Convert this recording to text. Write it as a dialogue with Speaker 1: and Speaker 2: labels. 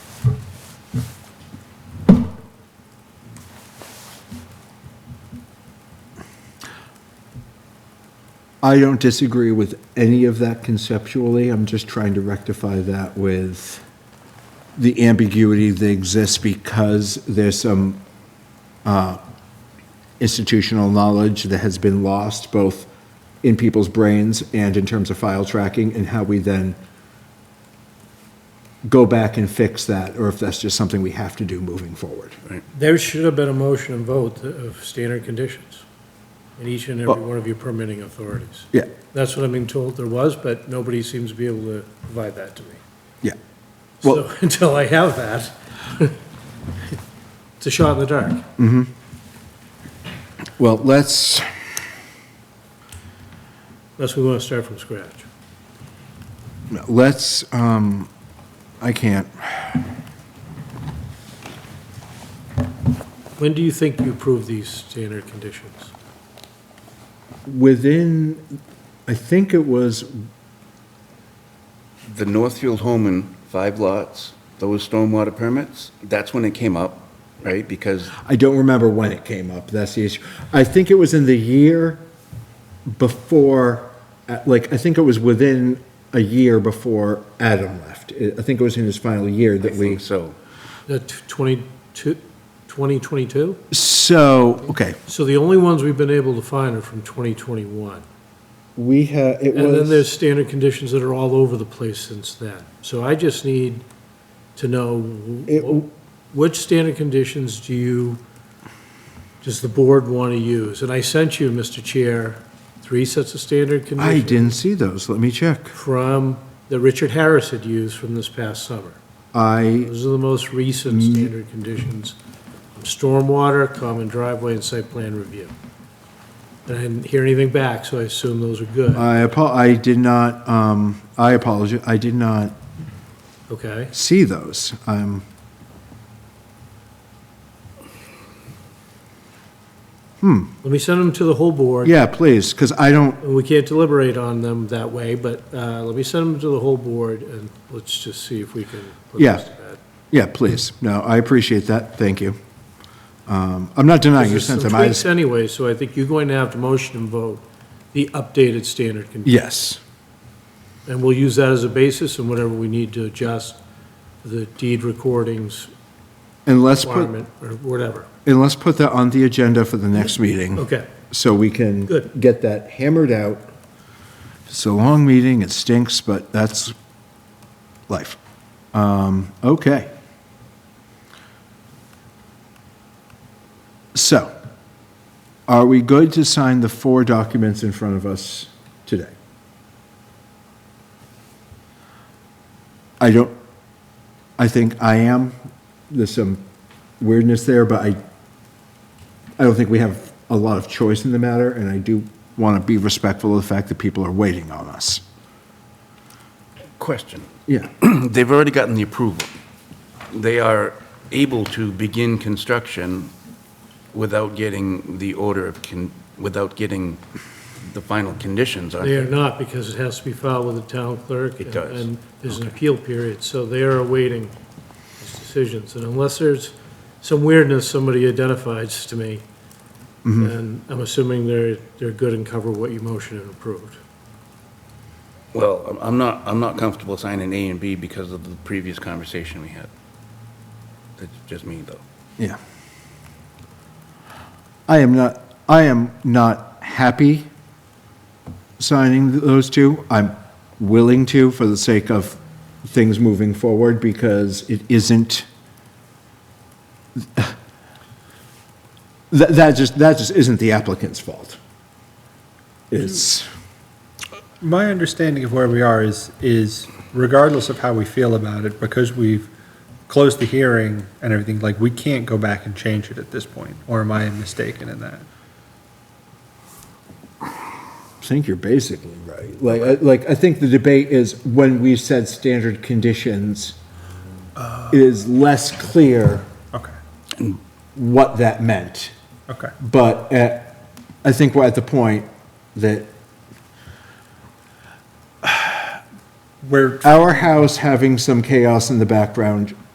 Speaker 1: I don't disagree with any of that conceptually. I'm just trying to rectify that with the ambiguity that exists because there's some uh, institutional knowledge that has been lost, both in people's brains and in terms of file tracking, and how we then go back and fix that, or if that's just something we have to do moving forward.
Speaker 2: There should have been a motion and vote of standard conditions in each and every
Speaker 1: Well-
Speaker 2: one of your permitting authorities.
Speaker 1: Yeah,
Speaker 2: That's what I've been told there was, but nobody seems to be able to provide that to me.
Speaker 1: yeah. Well-
Speaker 2: So until I have that, it's a shot in the dark.
Speaker 1: Well, let's,
Speaker 2: Unless we want to start from scratch.
Speaker 1: let's, um, I can't.
Speaker 2: When do you think you approve these standard conditions?
Speaker 1: Within, I think it was,
Speaker 3: The Northfield home in five lots, those stormwater permits, that's when it came up, right? Because
Speaker 1: I don't remember when it came up, that's the issue. I think it was in the year before, uh, like, I think it was within a year before Adam left. I I think it was in his final year
Speaker 3: I
Speaker 1: that we.
Speaker 3: think so.
Speaker 2: The t- 22 2022?
Speaker 1: So, okay,
Speaker 2: So the only ones we've been able to find are from 2021.
Speaker 1: we had, it was.
Speaker 2: And then there's standard conditions that are all over the place since then. So I just need to know, wh-
Speaker 1: It-
Speaker 2: which standard conditions do you, does the board want to use? And I sent you, Mr. Chair, three sets of standard
Speaker 1: I
Speaker 2: conditions.
Speaker 1: didn't see those, let me check.
Speaker 2: From, that Richard Harris had used from this past summer.
Speaker 1: I,
Speaker 2: Those are the most recent
Speaker 1: Mm.
Speaker 2: standard conditions. Stormwater, common driveway, and site plan review. And I didn't hear anything back, so I assume those are good,
Speaker 1: I apo, I did not, um, I apologize, I did not
Speaker 2: okay?
Speaker 1: see those. Um,
Speaker 2: Let me send them to the whole board.
Speaker 1: yeah, please, because I don't,
Speaker 2: And We can't deliberate on them that way, but uh, let me send them to the whole board, and let's just see if we can put
Speaker 1: Yeah.
Speaker 2: this to bed.
Speaker 1: Yeah, please. No, I appreciate that. Thank you. Um, I'm not denying you
Speaker 2: There's some
Speaker 1: sent them. I
Speaker 2: tweaks
Speaker 1: just,
Speaker 2: anyway, so I think you're going to have to motion and vote the updated standard conditions.
Speaker 1: yes,
Speaker 2: And we'll use that as a basis and whatever we need to adjust the deed recordings
Speaker 1: and let's put,
Speaker 2: requirement or whatever.
Speaker 1: and let's put that on the agenda for the next meeting,
Speaker 2: Okay,
Speaker 1: so we can
Speaker 2: Good.
Speaker 1: get that hammered out. It's a long meeting, it stinks, but that's life. Um, okay. So, are we good to sign the four documents in front of us today? I don't, I think I am. There's some weirdness there, but I, I don't think we have a lot of choice in the matter, and I do want to be respectful of the fact that people are waiting on us.
Speaker 3: Question.
Speaker 1: Yeah.
Speaker 3: They've already gotten the approval. They are able to begin construction without getting the order of, con- without getting the final conditions on
Speaker 2: they are
Speaker 3: it.
Speaker 2: not because it has to be filed with the town clerk.
Speaker 3: It does.
Speaker 2: And there's an appeal period, so they are awaiting these decisions. And unless there's some weirdness somebody identifies to me,
Speaker 3: Mm-hmm.
Speaker 2: then I'm assuming they're, they're good and cover what you motioned and approved.
Speaker 3: Well, I'm- I'm not, I'm not comfortable signing A and B because of the previous conversation we had. That's just me, though.
Speaker 1: Yeah. I am not, I am not happy signing th- those two. I'm willing to for the sake of things moving forward because it isn't. That, that just, that just isn't the applicant's fault. It's,
Speaker 4: My understanding of where we are is, is regardless of how we feel about it, because we've closed the hearing and everything, like, we can't go back and change it at this point, or am I mistaken in that?
Speaker 1: I think you're basically right. Like, I- like, I think the debate is when we said standard conditions, it is less clear
Speaker 4: Okay,
Speaker 1: what that meant.
Speaker 4: okay.
Speaker 1: But uh, I think we're at the point that
Speaker 4: We're
Speaker 1: our house having some chaos in the background